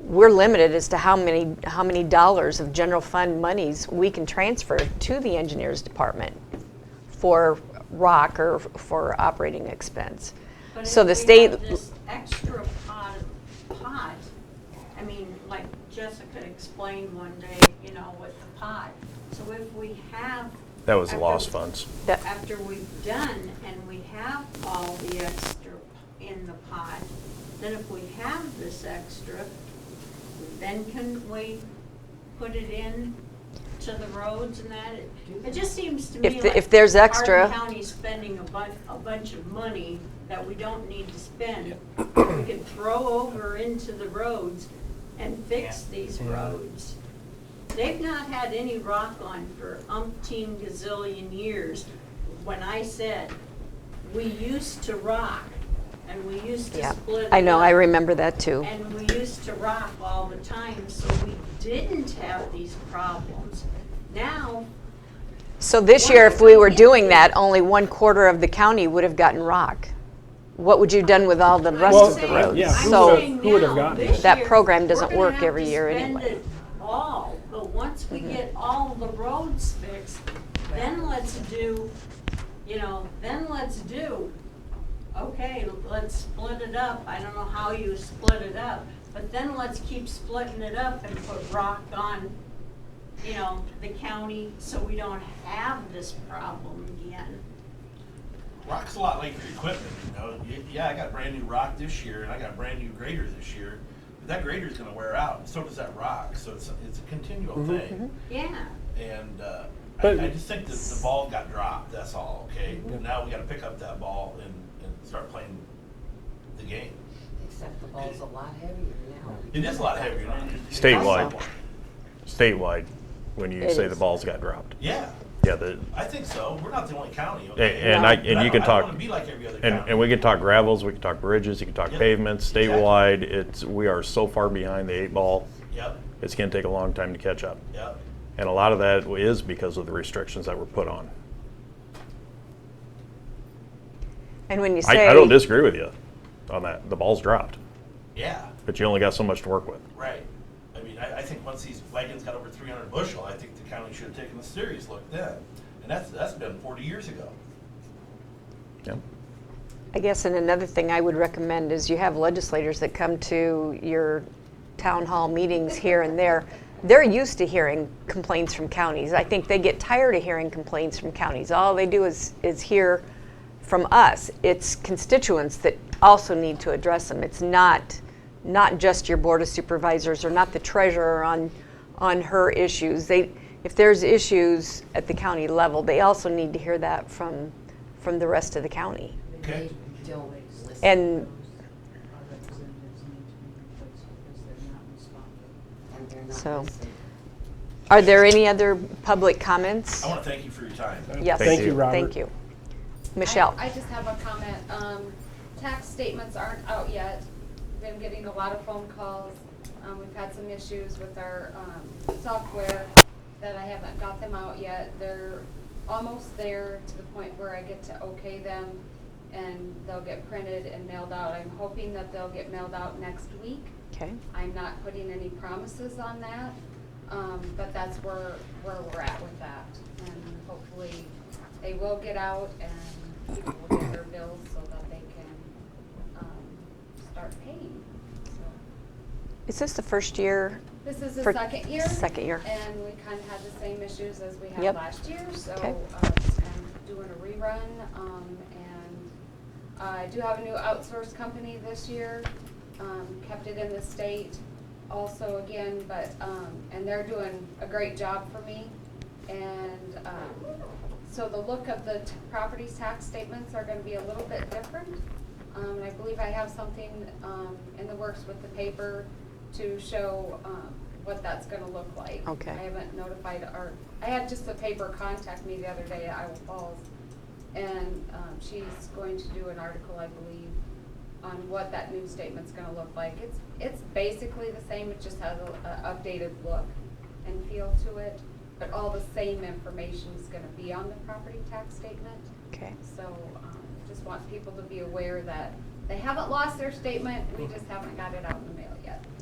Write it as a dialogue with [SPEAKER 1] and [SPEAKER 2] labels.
[SPEAKER 1] we're limited as to how many, how many dollars of general fund monies we can transfer to the engineers department for rock or for operating expense.
[SPEAKER 2] But
[SPEAKER 1] So
[SPEAKER 2] if
[SPEAKER 1] the
[SPEAKER 2] we
[SPEAKER 1] state,
[SPEAKER 2] have This extra pot, pot, I mean, like Jessica explained one day, you know, with the pot. So if we have.
[SPEAKER 3] That was
[SPEAKER 2] after-
[SPEAKER 3] lost funds.
[SPEAKER 1] That-
[SPEAKER 2] After we've done and we have all the extra in the pot, then if we have this extra, then can we put it in to the roads and that? It- It just seems to
[SPEAKER 1] If
[SPEAKER 2] me
[SPEAKER 1] the-
[SPEAKER 2] like.
[SPEAKER 1] if there's
[SPEAKER 2] Hardin
[SPEAKER 1] extra-
[SPEAKER 2] County county spending a bu- a bunch of money that we don't need to spend. We could throw over into the roads and fix these roads. They've not had any rock on for umpteen gazillion years. When I said, we used to rock, and we used to
[SPEAKER 1] yeah,
[SPEAKER 2] split it
[SPEAKER 1] I know, I
[SPEAKER 2] up.
[SPEAKER 1] remember that too.
[SPEAKER 2] And we used to rock all the time, so we didn't have these problems. Now,
[SPEAKER 1] So this year, if we were doing that, only one quarter of the county would have gotten rock. What would you have done with all the rest
[SPEAKER 4] Well,
[SPEAKER 1] of the
[SPEAKER 4] Right,
[SPEAKER 1] roads?
[SPEAKER 4] yeah, who
[SPEAKER 1] So-
[SPEAKER 4] would've- who would've gotten it?
[SPEAKER 1] That program doesn't work every year Mm-hmm. anyway.
[SPEAKER 2] All, but once we get all the roads fixed, then let's do, you know, then let's do, okay, let's split it up. I don't know how you split it up, but then let's keep splitting it up and put rock on, you know, the county so we don't have this problem again.
[SPEAKER 5] Rock's a lot like your equipment, you know. Y- Yeah, I got brand new rock this year, and I got a brand new grader this year, but that grader's gonna wear out, and so does that rock. So it's, it's a continual thing.
[SPEAKER 2] Yeah,
[SPEAKER 5] And uh,
[SPEAKER 4] But-
[SPEAKER 5] I, I just think that the ball got dropped. That's all. Okay, And now we got to pick up that ball and, and start playing the game.
[SPEAKER 6] Except the ball's a lot heavier now.
[SPEAKER 5] It is a lot heavier. now.
[SPEAKER 3] Statewide. Statewide, when you
[SPEAKER 1] It
[SPEAKER 3] say the
[SPEAKER 1] is.
[SPEAKER 3] balls got dropped.
[SPEAKER 5] Yeah,
[SPEAKER 3] Yeah, the,
[SPEAKER 5] I think so. We're not the only county.
[SPEAKER 3] and,
[SPEAKER 5] Okay?
[SPEAKER 3] and I,
[SPEAKER 5] But
[SPEAKER 3] and you can
[SPEAKER 5] I don't
[SPEAKER 3] talk,
[SPEAKER 5] want to be like every other
[SPEAKER 3] and,
[SPEAKER 5] county.
[SPEAKER 3] and we can talk gravels, we can talk bridges, you can talk
[SPEAKER 5] Yeah,
[SPEAKER 3] pavements,
[SPEAKER 5] exactly.
[SPEAKER 3] statewide, it's, we are so far behind the eight ball,
[SPEAKER 5] Yep.
[SPEAKER 3] it's gonna take a long time to catch up.
[SPEAKER 5] Yep.
[SPEAKER 3] And a lot of that is because of the restrictions that were put on.
[SPEAKER 1] And when you say.
[SPEAKER 3] I, I don't disagree with you on that, the ball's dropped,
[SPEAKER 5] Yeah.
[SPEAKER 3] but you only got so much to work with.
[SPEAKER 5] Right. I mean, I, I think once these wagons got over three hundred bushel, I think the county should have taken a serious look then. And that's, that's been forty years ago.
[SPEAKER 3] Yeah.
[SPEAKER 1] I guess, and another thing I would recommend is you have legislators that come to your town hall meetings here and there. They're used to hearing complaints from counties. I think they get tired of hearing complaints from counties. All they do is, is hear from us. It's constituents that also need to address them. It's not, not just your board of supervisors or not the treasurer on, on her issues. They, if there's issues at the county level, they also need to hear that from, from the rest of the county.
[SPEAKER 5] Okay.
[SPEAKER 6] They don't listen.
[SPEAKER 1] And-
[SPEAKER 7] our representatives need to be replaced because they're not responding.
[SPEAKER 6] And they're not
[SPEAKER 1] So-
[SPEAKER 6] listening.
[SPEAKER 1] Are there any other public comments?
[SPEAKER 5] I want to thank you for your time.
[SPEAKER 1] Yes.
[SPEAKER 4] Thank you, Robert.
[SPEAKER 1] Thank you. Michelle?
[SPEAKER 8] I I just have a comment. Um, Tax statements aren't out yet. Been getting a lot of phone calls. Um, We've had some issues with our um, software that I haven't got them out yet. They're almost there to the point where I get to okay them, and they'll get printed and mailed out. I'm hoping that they'll get mailed out next week.
[SPEAKER 1] Okay.
[SPEAKER 8] I'm not putting any promises on that, um, but that's where, where we're at with that. And hopefully, they will get out and people will get their bills so that they can, um, start paying, so.
[SPEAKER 1] Is this the first year?
[SPEAKER 8] This is the
[SPEAKER 1] For
[SPEAKER 8] second year.
[SPEAKER 1] second year.
[SPEAKER 8] And we kind of had the same issues as we
[SPEAKER 1] Yep.
[SPEAKER 8] had last year, so,
[SPEAKER 1] Okay.
[SPEAKER 8] uh, just kind of doing a rerun, um, and I do have a new outsourced company this year, um, kept it in the state also again, but, um, and they're doing a great job for me. And, um, so the look of the t- property tax statements are gonna be a little bit different. Um, and I believe I have something, um, in the works with the paper to show, um, what that's gonna look like.
[SPEAKER 1] Okay.
[SPEAKER 8] I haven't notified our, I had just the paper contact me the other day at Iowa Falls, and um, she's going to do an article, I believe, on what that new statement's gonna look like. It's, it's basically the same, it just has a, a updated look and feel to it, but all the same information's gonna be on the property tax statement.
[SPEAKER 1] Okay.
[SPEAKER 8] So, um, just want people to be aware that they haven't lost their statement, we just haven't got it out in the mail yet.